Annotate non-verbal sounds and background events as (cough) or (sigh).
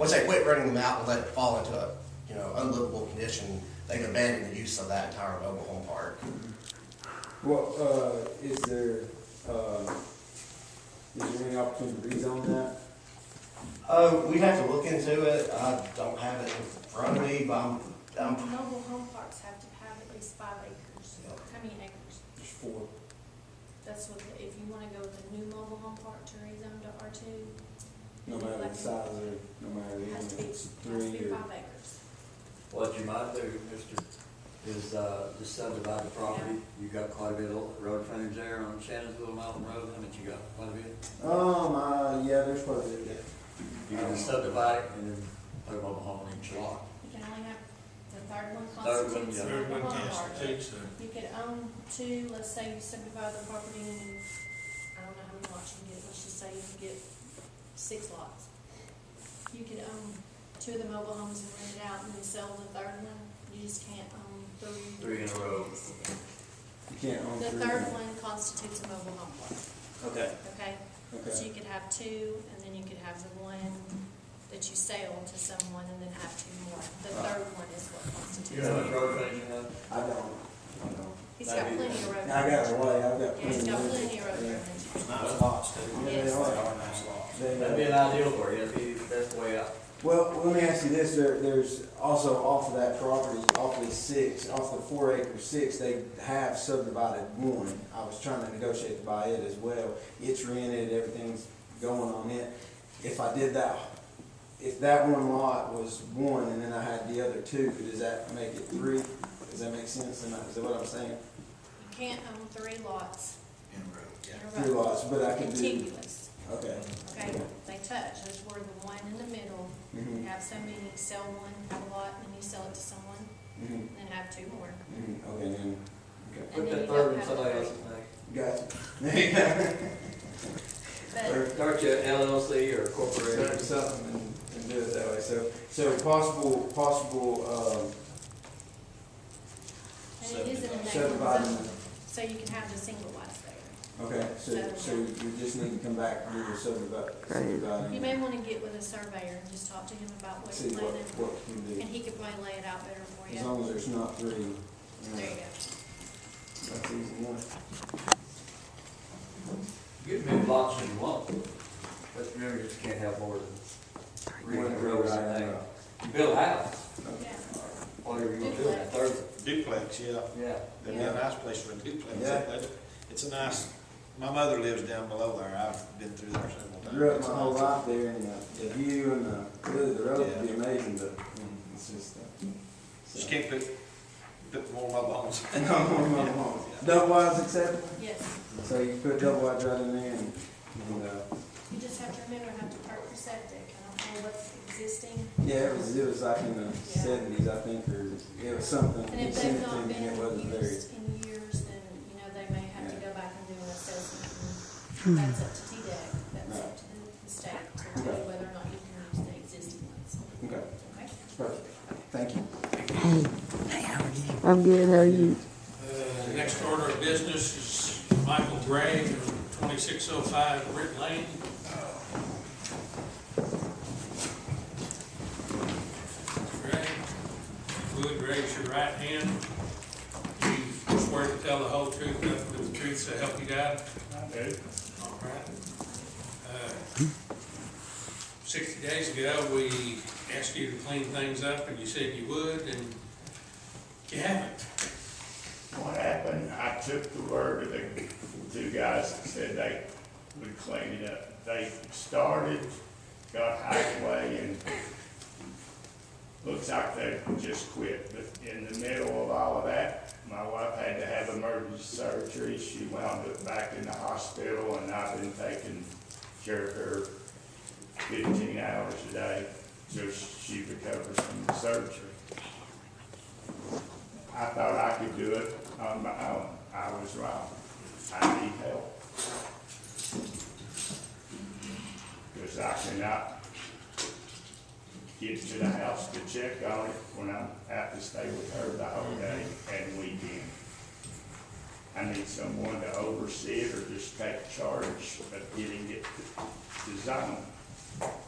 Once they quit renting them out and let it fall into a, you know, unlivable condition, they can abandon the use of that entire mobile home park. Well, uh, is there, uh, is there any opportunity to rezone that? Uh, we'd have to look into it, I don't have it in front of me, but I'm, Um, I'm Mobile home parks have to have at least five acres, how many acres? There's four. That's what, the- if you wanna go with a new mobile home park to rezone to R two, No matter the size or, no matter the, it has to be, amount, it's has to be three or. five acres. What you might do, mister, is, uh, just subdivide the property. You got quite a bit of road frontage there on Shannonsville Mountain Road, how much you got, quite a bit? Um, uh, yeah, there's probably, You can Um, subdivide it and then put a mobile home in each lot. You can only have, the third one Third one, constitutes yeah. a Third mobile home park. Well, You could own two, let's say you subdivide the property, and I don't know how many lots you can get, let's just say you can get six lots. You could own two of the mobile homes and rent it out and then sell the third one, you just can't own three. Three in a row. you can't own The three. third one constitutes a mobile home park, Okay. okay? So Okay, you could have two, and then you could have the one that you sell to someone and then have two more. The third one is what You constitutes. know how it. much road frontage you have? I don't, I don't. He's got plenty of road. I got a frontage. way, I've got. Yeah, he's got of- plenty of road. Yeah. frontage. Nice lots, too. Yeah, they are. They, uh, That'd be an ideal for you, that'd be the best way out. Well, let me ask you this, there, there's also off of that property, off the six, off the four acre six, they have subdivided one. I was trying to negotiate to buy it as well, it's rented, everything's going on it. If I did that, if that one lot was one and then I had the other two, does that make it three? Does that make sense, Am I- is that what I'm saying? You can't own three lots in room, yeah. in a Three row. lots, but I could do, Contiguous, okay. okay, they touch, there's where the one in the middle, Mhm, have so many, sell one, have a lot, and then you sell it to someone, mhm, and then have two more. mhm, Okay, then, okay, And Put then you that don't third in have somebody a else's three. name. gotcha. But Start your LLC or set up corporation. something and, and do it that way, so, so possible, possible, um, and it is in a neighborhood Subdividing. zone, so you can have the single lots um, there. okay, so, so you just need to come back and do the subdivision, You subdividing, may wanna get with a surveyor and just talk to him about what Uh-huh. see you're what, planning, what you can and do, he could probably lay it out better for as you. long as there's not three, you know, There you go. that's easy enough. Get as many lots as you want, but remember, you just can't have more than three in a row or something. You build a house, Yeah, whatever you want to do, that third, Duplex, yeah, yeah. that'd be a nice place for a duplex. Yeah. That's- It's a nice, my mother lives down below there, I've been through there several times. Grew up my whole life there and the, the view and the, really the road would be Yeah. amazing, but, mm, it's just, uh. Just can't put, put more mobile homes. No, no, no, (laughs) no. Double wide's acceptable, yes, so you put double wide right in there and, and, uh, you just have to remember, have to park for septic, I don't know what's existing, Yeah, it was, it was like in the seventies, I think, or it was something. And He if sent they've it to not me, been and it wasn't very. used in years, then, you know, they may have to go back and do an assessment. and That's up to TDEC, that's up to the- the state to do Okay. whether or not you can use the existing ones. Okay, Okay? perfect. Thank you. I'm good. How are you? Uh, The next order of business is Michael Gray, twenty-six oh five Britt Lane. Gray, if you would raise your right hand. Do you swear to tell the whole truth, nothing but the truth, so help you God? I do. All right. Uh, Sixty days ago, we asked you to clean things up, and you said you would, and you haven't. What happened, I took the word of the two guys that said they would clean it up. They started, got halfway, and looks like they just quit. But in the middle of all of that, my wife had to have emergency surgery. She wound up back in the hospital, and I've been taking care of her fifteen hours a day till she recovers from the surgery. I thought I could do it on my own. I was wrong. I need help. Because I cannot get to the house to check on it when I'm out to stay with her the whole day and weekend. I need someone to oversee it or just take charge of getting it to- to zone.